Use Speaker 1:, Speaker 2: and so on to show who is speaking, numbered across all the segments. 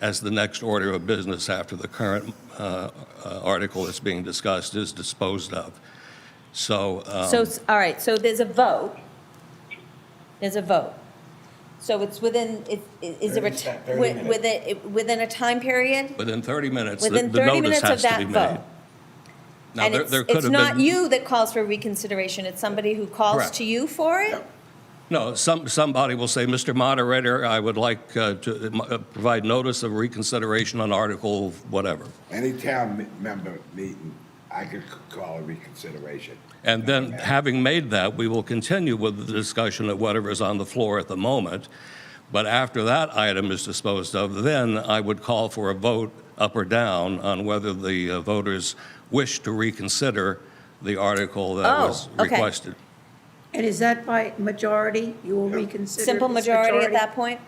Speaker 1: as the next order of business after the current uh, uh, article that's being discussed is disposed of. So, uh,
Speaker 2: So, s- all right, so there's a vote. There's a vote. So it's within, it- i- is there a,
Speaker 3: Thirty
Speaker 2: t-
Speaker 3: sec- thirty
Speaker 2: wi-
Speaker 3: minutes.
Speaker 2: within, it- within a time period?
Speaker 1: within 30 minutes, the
Speaker 2: Within
Speaker 1: the
Speaker 2: 30
Speaker 1: notice
Speaker 2: minutes of
Speaker 1: has to
Speaker 2: that
Speaker 1: be
Speaker 2: vote?
Speaker 1: made. Now,
Speaker 2: And
Speaker 1: there
Speaker 2: it's,
Speaker 1: there could
Speaker 2: it's
Speaker 1: have
Speaker 2: not
Speaker 1: been-
Speaker 2: you that calls for reconsideration, it's somebody who calls
Speaker 1: Correct.
Speaker 2: to you for it?
Speaker 1: No, some, somebody will say, Mr. Moderator, I would like uh, to uh, provide notice of reconsideration on Article whatever.
Speaker 3: Any town me- member meeting, I could c- call a reconsideration.
Speaker 1: And then, having made that, we will continue with the discussion of whatever is on the floor at the moment. But after that item is disposed of, then I would call for a vote up or down on whether the uh, voters wish to reconsider the article that
Speaker 2: Oh,
Speaker 1: was
Speaker 2: okay.
Speaker 1: requested.
Speaker 4: And is that by majority? You will reconsider?
Speaker 2: Simple
Speaker 4: this
Speaker 2: majority at that point?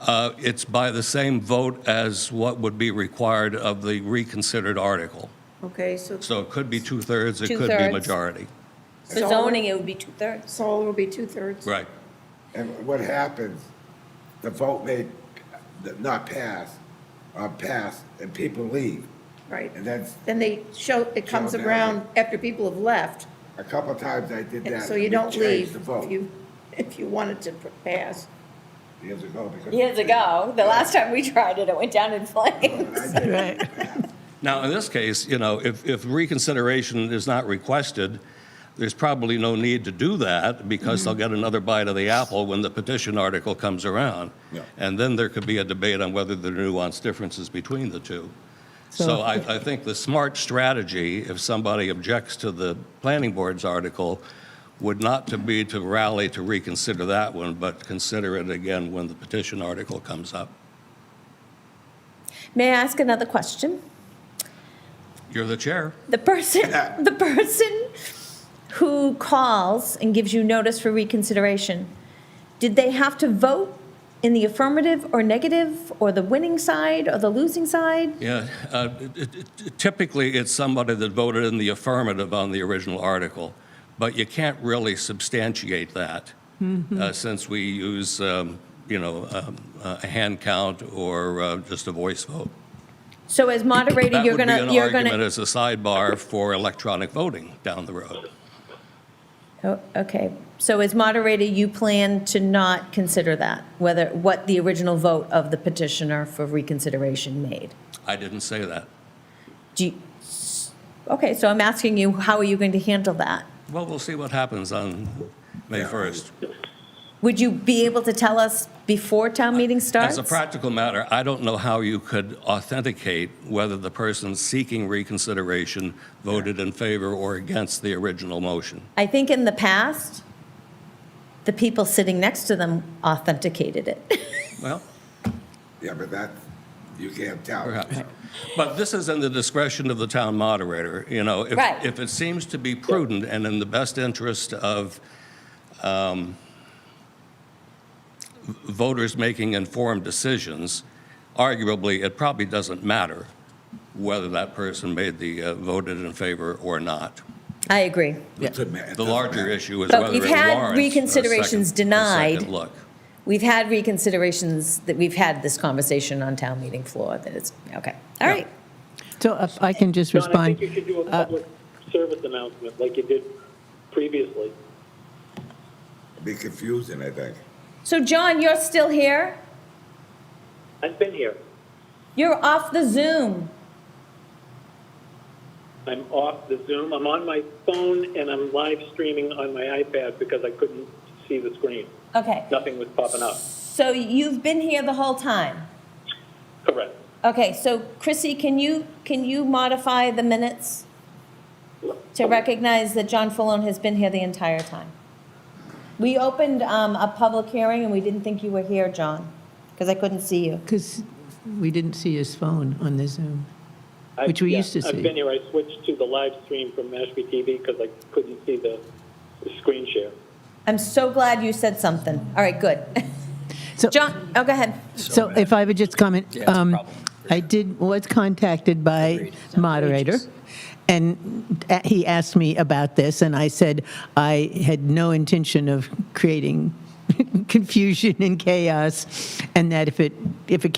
Speaker 1: Uh, It's by the same vote as what would be required of the reconsidered article.
Speaker 4: Okay, so,
Speaker 1: So it could be two-thirds, it could be
Speaker 2: Two-thirds.
Speaker 1: majority.
Speaker 2: For zoning, it would be two-thirds.
Speaker 4: so it will be two-thirds?
Speaker 1: Right.
Speaker 3: And what happens, the vote may p- not pass, or pass, and people leave.
Speaker 4: Right.
Speaker 3: And that's,
Speaker 4: Then they show, it comes
Speaker 3: Show down.
Speaker 4: around after people have left,
Speaker 3: a couple of times I did that.
Speaker 4: so you
Speaker 3: and
Speaker 4: don't
Speaker 3: changed
Speaker 4: leave
Speaker 3: the
Speaker 4: if
Speaker 3: vote
Speaker 4: you, if you wanted to pass.
Speaker 3: years ago. because-
Speaker 2: Years ago, the last time we tried it, it went down in flames.
Speaker 3: I did.
Speaker 1: Now, in this case, you know, if, if reconsideration is not requested, there's probably no need to do that because they'll get another bite of the apple when the petition article comes around.
Speaker 3: Yeah.
Speaker 1: And then there could be a debate on whether there are nuanced differences between the two. So I, I think the smart strategy, if somebody objects to the planning board's article, would not to be to rally to reconsider that one, but consider it again when the petition article comes up.
Speaker 2: May I ask another question?
Speaker 1: You're the chair.
Speaker 2: The person, the person who calls and gives you notice for reconsideration, did they have to vote in the affirmative or negative, or the winning side or the losing side?
Speaker 1: Yeah, uh, it- it- it- typically, it's somebody that voted in the affirmative on the original article, but you can't really substantiate that
Speaker 2: Mm-hmm.
Speaker 1: uh, since we use, um, you know, um, a hand count or uh, just a voice vote.
Speaker 2: So as moderator,
Speaker 1: That
Speaker 2: you're
Speaker 1: would be
Speaker 2: gonna,
Speaker 1: an
Speaker 2: you're
Speaker 1: argument
Speaker 2: gonna.
Speaker 1: as a sidebar for electronic voting down the road.
Speaker 2: Oh, Okay, so as moderator, you plan to not consider that, whether, what the original vote of the petitioner for reconsideration made?
Speaker 1: I didn't say that.
Speaker 2: Do you, okay, so I'm asking you, how are you going to handle that?
Speaker 1: Well, we'll see what happens on May 1st.
Speaker 2: Would you be able to tell us before town meeting starts?
Speaker 1: Uh, As a practical matter, I don't know how you could authenticate whether the person seeking reconsideration voted in favor or against the original motion.
Speaker 2: I think in the past, the people sitting next to them authenticated it.
Speaker 1: Well,
Speaker 3: Yeah, but that, you can't tell.
Speaker 1: perhaps. But this is in the discretion of the town moderator, you know? if-
Speaker 2: Right.
Speaker 1: If it seems to be prudent and in the best interest of um, v- voters making informed decisions, arguably, it probably doesn't matter whether that person made the, uh, voted in favor or not.
Speaker 2: I agree.
Speaker 3: It doesn't matter.
Speaker 1: The larger issue is
Speaker 2: But
Speaker 1: whether it
Speaker 2: we've
Speaker 1: warrants.
Speaker 2: had
Speaker 1: a second-
Speaker 2: reconsiderations
Speaker 1: a second
Speaker 2: denied.
Speaker 1: look.
Speaker 2: We've had reconsiderations that we've had this conversation on town meeting floor that it's, okay, all right.
Speaker 5: So if I can just
Speaker 6: John, I think you
Speaker 5: respond.
Speaker 6: should do a public service announcement like you did previously.
Speaker 3: Be confusing, I think.
Speaker 2: So John, you're still here?
Speaker 6: I've been here.
Speaker 2: You're off the Zoom.
Speaker 6: I'm off the Zoom. I'm on my phone and I'm live streaming on my iPad because I couldn't see the screen.
Speaker 2: Okay,
Speaker 6: Nothing was popping up.
Speaker 2: so you've been here the whole time?
Speaker 6: Correct.
Speaker 2: Okay, so Chrissy, can you, can you modify the minutes to recognize that John Falone has been here the entire time? We opened um, a public hearing and we didn't think you were here, John, because I couldn't see you.
Speaker 5: Because we didn't see his phone on the Zoom.
Speaker 6: I-
Speaker 5: Which we
Speaker 6: yeah,
Speaker 5: used to see.
Speaker 6: I've been here. I switched to the live stream from Mashpee TV because I couldn't see the the screen share.
Speaker 2: I'm so glad you said something. All right, good.
Speaker 5: So-
Speaker 2: John, oh, go ahead.
Speaker 5: So if I would just comment, um, I did, was contacted by moderator, and a- he asked me about this, and I said I had no intention of creating confusion and chaos, and that if it, if it